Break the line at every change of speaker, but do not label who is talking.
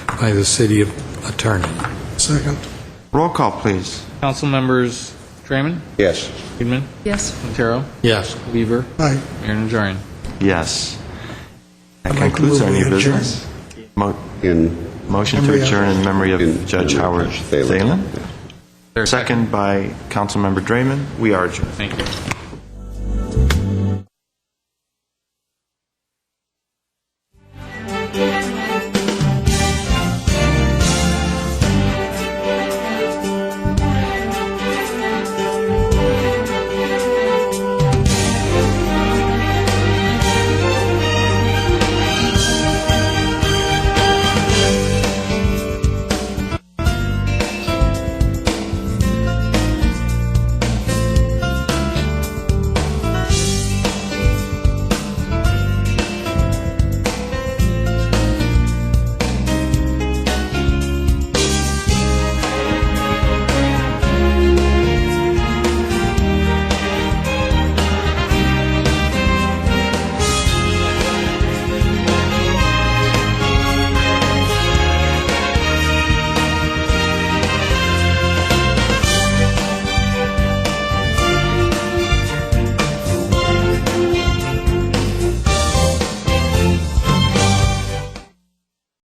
by the city attorney.
Second.
Roll call, please.
Council members Draymond,
Yes.
Friedman,
Yes.
Quintero,
Yes.
Weaver,
Aye.
Mayor Najarian.
Yes. That
I'd like to
concludes
move
our
we
new
adjourn.
business. Mo-
In
Motion
Memory
to
of-
adjourn in memory
in-
of Judge
in-
Howard
Judge Thalen.
Thalen. Second by Councilmember Draymond. We are adjourned.
Thank you.